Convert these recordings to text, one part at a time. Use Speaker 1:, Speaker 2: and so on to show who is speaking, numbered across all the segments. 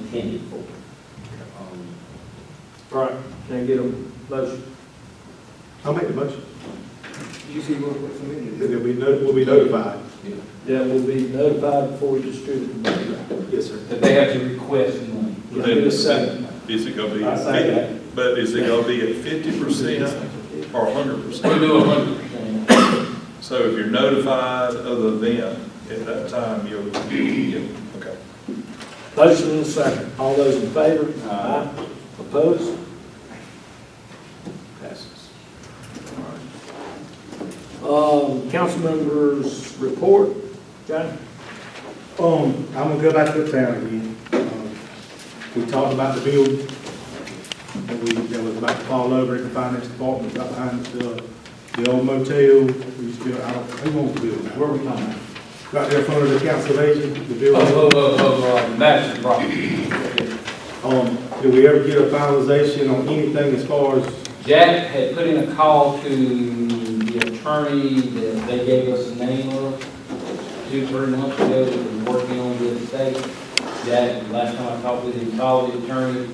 Speaker 1: intended for. Um,
Speaker 2: All right, can I get a motion?
Speaker 3: I'll make the motion,
Speaker 4: You see what, what's amended?
Speaker 3: that we know, we'll be notified.
Speaker 2: That will be notified before you distribute the money.
Speaker 3: Yes, sir.
Speaker 1: That they have to request money.
Speaker 2: Can I get a second?
Speaker 5: Is it gonna be,
Speaker 1: I say that.
Speaker 5: at fif- but is it gonna be at fifty percent or hundred
Speaker 1: We
Speaker 5: percent?
Speaker 1: do a hundred percent.
Speaker 5: So if you're notified of the event at that time, you'll, you'll, get- okay.
Speaker 2: Motion and a second. All those in favor?
Speaker 1: Aye.
Speaker 2: Opposed? Passes. Um, council members report. John?
Speaker 3: Um, I'm gonna go back to the town again. Um, We talked about the bill that we, that was about to fall over at the finance department, right behind the, the old motel. We used to, build- I don't, who owns the building?
Speaker 1: Where are we talking about?
Speaker 3: Right there in front of the council of agent, the building.
Speaker 1: Oh, oh, oh, oh, oh, that's the problem.
Speaker 3: Um, did we ever get a finalization on anything as far as,
Speaker 1: Jack had put in a call to the attorney that they gave us a name of two, three months ago that was working on the estate. Jack, last time I talked with him, called the attorney,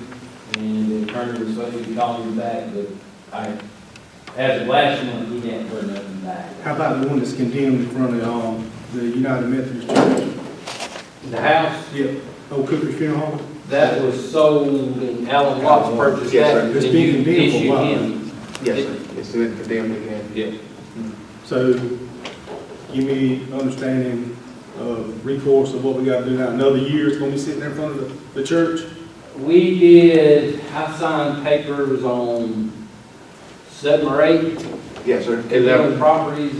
Speaker 1: and the attorney was supposed to be calling me back, but I, as of last month, he hadn't heard nothing back.
Speaker 3: how about the one that's condemned in front of, um, the United Methodist Church?
Speaker 1: The house,
Speaker 3: Yeah. Old Cooper's Funeral Home?
Speaker 1: that was sold, and Alan Watts purchased that.
Speaker 6: Yes, sir.
Speaker 1: and
Speaker 3: It's been
Speaker 1: you
Speaker 3: condemned for a
Speaker 1: issued
Speaker 3: while.
Speaker 1: him-
Speaker 6: Yes, sir. It's been condemned again.
Speaker 1: Yeah.
Speaker 3: So give me an understanding of recourse of what we gotta do now. Another year is gonna be sitting there in front of the, the church?
Speaker 1: We did, I signed papers on seven or eight
Speaker 6: Yes, sir.
Speaker 1: different properties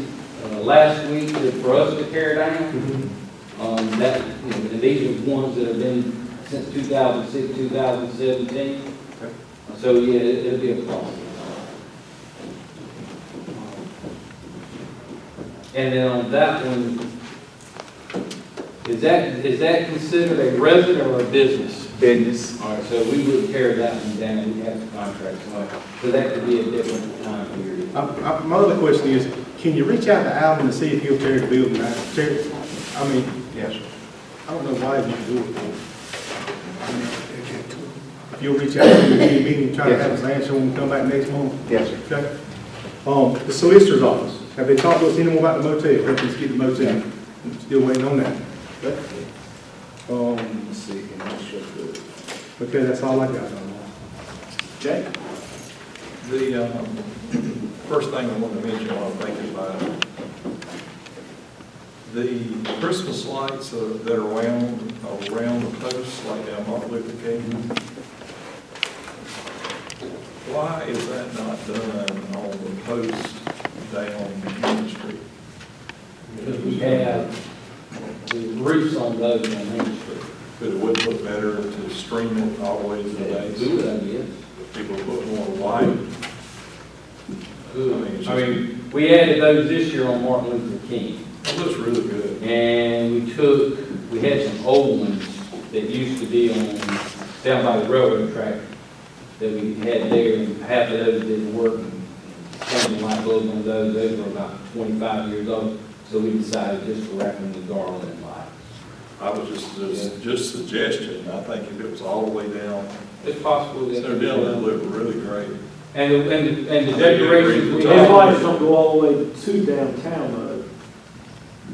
Speaker 1: uh, last week that for us to tear down. Um, that, you know, and these are ones that have been since two thousand six, two thousand seventeen.
Speaker 3: Okay.
Speaker 1: So, yeah, it- it'll be a problem. And then on that one, is that, is that considered a resident or a business?
Speaker 6: Business.
Speaker 1: All right, so we would tear that one down, we have the contract, so- so that could be a different time period.
Speaker 3: I, I, my other question is, can you reach out to Alvin and see if he'll tear the building out? Tear, I mean,
Speaker 6: Yes, sir.
Speaker 3: I don't know why you do it. If you'll reach out to him, meet him, try to have his answer when we come back next month.
Speaker 6: Yes,
Speaker 3: Okay.
Speaker 6: sir.
Speaker 3: Um, the solicitor's office, have they talked to us anymore about the motel, helping us get the motel? Still waiting on that. Okay. Um,
Speaker 6: Let's see, and I'll shut the-
Speaker 3: okay, that's all I got.
Speaker 5: Jake? The, um, first thing I want to mention while I'm thinking about it, the Christmas lights uh, that are around, around the posts, like down Martin Luther King, why is that not done on the post down Main Street?
Speaker 1: Because we have the roofs on those on Main Street.
Speaker 5: But it would look better to stream it always the days.
Speaker 1: Good idea.
Speaker 5: People put more light.
Speaker 1: Good. I mean, we added those this year on Martin Luther King.
Speaker 5: It looks really good.
Speaker 1: And we took, we had some old ones that used to be on, down by the railroad track that we had there, and half of those didn't work. and Some of the light bulbs on those, those were about twenty-five years old, so we decided just to wrap them with garland and light.
Speaker 5: I was just, just, just suggestion, I think if it was all the way down,
Speaker 1: It's possible that.
Speaker 5: Center Dale, that'd look really great.
Speaker 1: And, the- and, the- and the decorations we
Speaker 5: Yeah.
Speaker 2: These
Speaker 1: have.
Speaker 2: lights don't go all the way to downtown, though.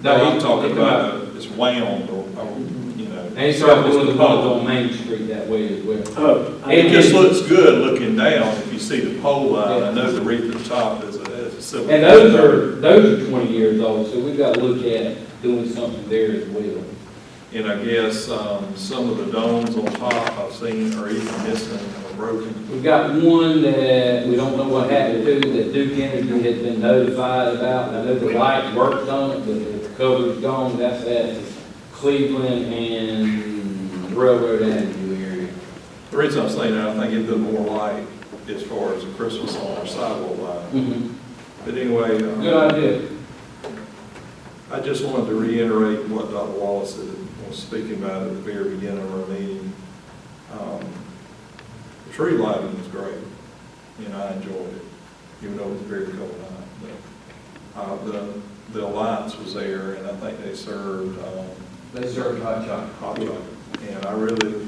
Speaker 5: No, I'm talking about, uh, it's wound, or, or, you know.
Speaker 1: And it's starting doing the ones on Main Street that way as well.
Speaker 2: Oh. I-
Speaker 5: It just looks good looking down, if you see the pole line, I know the reef at the top is a, is a civil.
Speaker 1: And those are, those are twenty years old, so we've got to look at doing something there as well.
Speaker 5: And I guess, um, some of the domes on top I've seen are even missing or broken.
Speaker 1: We've got one that we don't know what happened to, that Duke Energy has been notified about. I know the light worked on it, but the cover's gone, that's at Cleveland and Railroad Avenue area.
Speaker 5: The reason I'm saying that, I think it'd be more light as far as the Christmas on our sidewalk line. But anyway, um,
Speaker 1: Good idea.
Speaker 5: I just wanted to reiterate what Dr. Wallace had- was speaking about at the very beginning of our meeting. Um, The tree lighting was great, and I enjoyed it, even though it was a very cold night. But, uh, The, the lights was there, and I think they served um,
Speaker 1: They serve hot chocolate.
Speaker 5: hot chocolate. And I really